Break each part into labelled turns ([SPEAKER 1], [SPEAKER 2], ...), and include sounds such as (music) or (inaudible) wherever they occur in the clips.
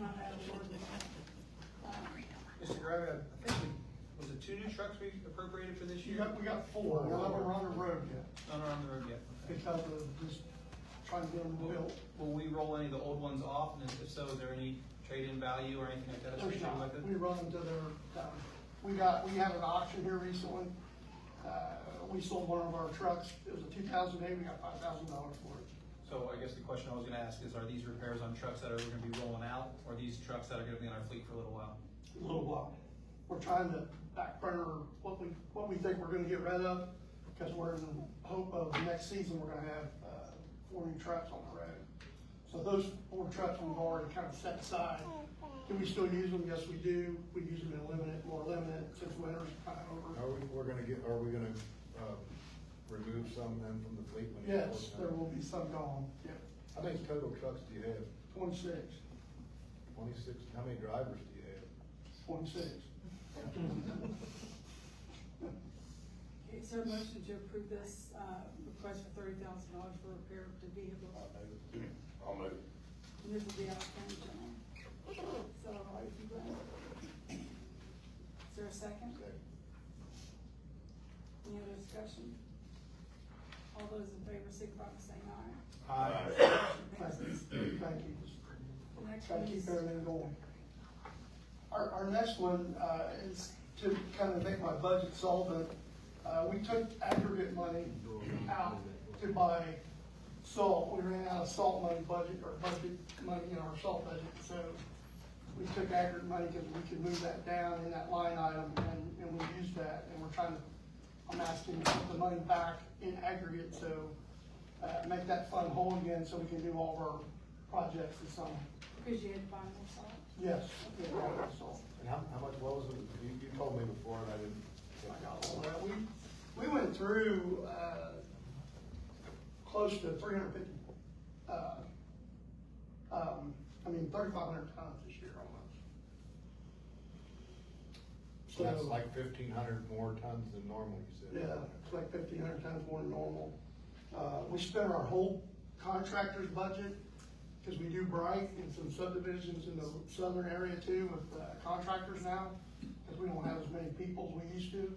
[SPEAKER 1] not out of order.
[SPEAKER 2] Mr. Gravy, I think we, was it two new trucks we appropriated for this
[SPEAKER 1] You
[SPEAKER 2] year?
[SPEAKER 1] got, we got four, none of them are on the road yet,
[SPEAKER 2] None are on the road yet, okay.
[SPEAKER 1] because of just trying to get them
[SPEAKER 2] Will,
[SPEAKER 1] built.
[SPEAKER 2] will we roll any of the old ones off, and if so, is there any trade-in value or anything like that
[SPEAKER 1] There's
[SPEAKER 2] associated with
[SPEAKER 1] not, we
[SPEAKER 2] it?
[SPEAKER 1] run into their, down. we got, we had an auction here recently, uh, we sold one of our trucks, it was a two thousand eight, we got five thousand dollars for it.
[SPEAKER 2] So I guess the question I was gonna ask is, are these repairs on trucks that are gonna be rolling out, or these trucks that are gonna be in our fleet for a little while?
[SPEAKER 1] A little while, we're trying to back burner what we, what we think we're gonna get rid of, because we're in hope of next season, we're gonna have, uh, four new trucks on the road. So those four trucks we've already kind of set aside, do we still use them? Yes, we do, we use them in limited, more limited, since winter's kind of over.
[SPEAKER 3] Are we, we're gonna get, are we gonna, uh, remove some then from the fleet? when you-
[SPEAKER 1] Yes, there will be some gone, yeah,
[SPEAKER 3] How many total trucks do you have?
[SPEAKER 1] twenty-six,
[SPEAKER 3] Twenty-six, how many drivers do you have?
[SPEAKER 1] twenty-six.
[SPEAKER 4] (laughs) Okay, Is there a motion to approve this, uh, request for thirty thousand dollars for repair of the vehicle?
[SPEAKER 3] I'll move.
[SPEAKER 4] And this will be out of county general. So, are you glad? Is there a second? Any other discussion? All those in favor, signify by saying aye. Motion
[SPEAKER 1] Thank
[SPEAKER 4] passes.
[SPEAKER 1] you. Thank you.
[SPEAKER 4] The next
[SPEAKER 1] Try to
[SPEAKER 4] one
[SPEAKER 1] keep
[SPEAKER 4] is-
[SPEAKER 1] everything going. Our, our next one, uh, is to kind of make my budget solvent. Uh, we took aggregate money out to buy salt. We ran out of salt money budget, or budget money in our salt budget, so we took aggregate money because we could move that down in that line item, and, and we used that, and we're trying to, I'm asking to put the money back in aggregate, so, uh, make that fund whole again, so we can do all of our projects this summer.
[SPEAKER 4] Because you had to buy more salt.
[SPEAKER 1] Yes, yeah, so,
[SPEAKER 3] And how, how much, what was it, you, you told me before and I didn't.
[SPEAKER 1] I got all that. We, we went through, uh, close to three hundred fifty, uh, um, I mean, thirty-five hundred tons this year almost.
[SPEAKER 3] So that's like fifteen hundred more tons than normal, you said.
[SPEAKER 1] Yeah, it's like fifteen hundred times more than normal. Uh, we spent our whole contractor's budget, cause we do bright and some subdivisions in the southern area too with uh, contractors now, cause we don't have as many people as we used to.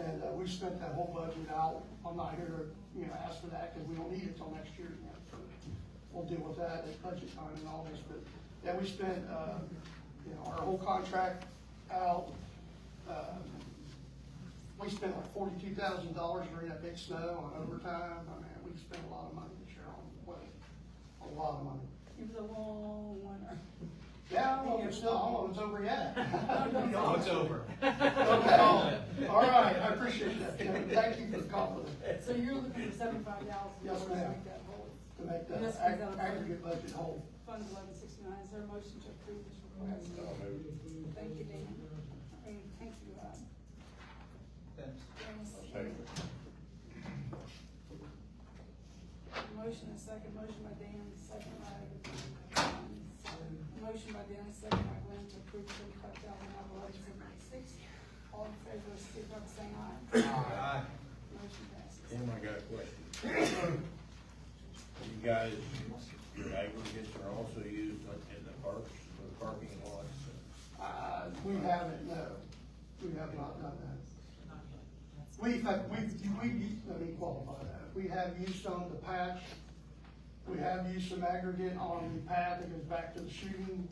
[SPEAKER 1] And, uh, we spent that whole budget out. I'm not here to, you know, ask for that, cause we don't need it till next year. you know, so We'll deal with that at budget time and all this, but, yeah, we spent, uh, you know, our whole contract out. Uh, we spent like forty-two thousand dollars during that big snow on overtime, I mean, we spent a lot of money this year on weather, a lot of money.
[SPEAKER 4] It was a long winter.
[SPEAKER 1] Yeah, well, it's still, I don't know if it's over yet.
[SPEAKER 2] (laughs) No, it's over.
[SPEAKER 1] Okay, all right, I appreciate that, Kevin, thank you for calling
[SPEAKER 4] So you're looking for seventy-five thousand dollars
[SPEAKER 1] Yes,
[SPEAKER 4] to
[SPEAKER 1] ma'am.
[SPEAKER 4] make that whole.
[SPEAKER 1] to make
[SPEAKER 4] Yes,
[SPEAKER 1] that
[SPEAKER 4] we
[SPEAKER 1] ag-
[SPEAKER 4] got it.
[SPEAKER 1] aggregate budget whole.
[SPEAKER 4] Fund eleven sixty-nine, is there a motion to approve this request? Thank you, Dan. I mean, thank you, uh,
[SPEAKER 2] Thanks.
[SPEAKER 4] Dennis. Motion and second, motion by Dan, second by Glenn. Motion by Dan, second by Glenn to approve thirty-five thousand out of eleven seventy-six. All in favor, signify by saying aye.
[SPEAKER 2] Aye.
[SPEAKER 4] Motion passes.
[SPEAKER 5] Tim, I got a question. You guys, your aggregates are also used in the parks, for the parking lots.
[SPEAKER 1] Uh, we haven't, no, we have not done that. We've, had- we've, we, let me qualify that, we have used some of the patch, we have used some aggregate on the pad that goes back to the shooting,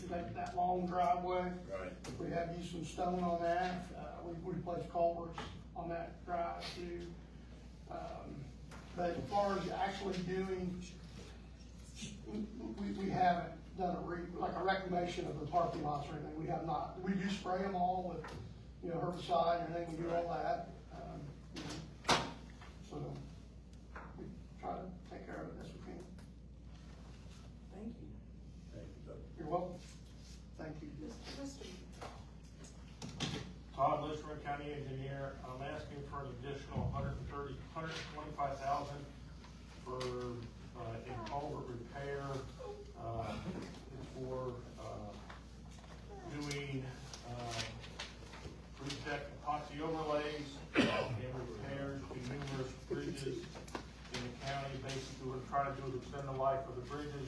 [SPEAKER 1] to make that long driveway.
[SPEAKER 5] Right.
[SPEAKER 1] We have used some stone on that, uh, we replaced culverts on that drive too. Um, But as far as actually doing, we, we haven't done a re, like a reclamation of the parking lots or anything, we have not. We do spray them all with, you know, herbicide and everything, we do all that. um, you know. So, we try to take care of it as we can.
[SPEAKER 4] Thank you.
[SPEAKER 1] You're welcome. Thank you.
[SPEAKER 4] Mr. Mr.
[SPEAKER 6] Todd Lister, County Engineer, I'm asking for an additional hundred and thirty, hundred and twenty-five thousand for, uh, a culvert repair, uh, for, uh, doing, uh, reset epoxy overlays and repairs to numerous bridges uh, in the county. Basically, we're trying to do is extend the life of the bridges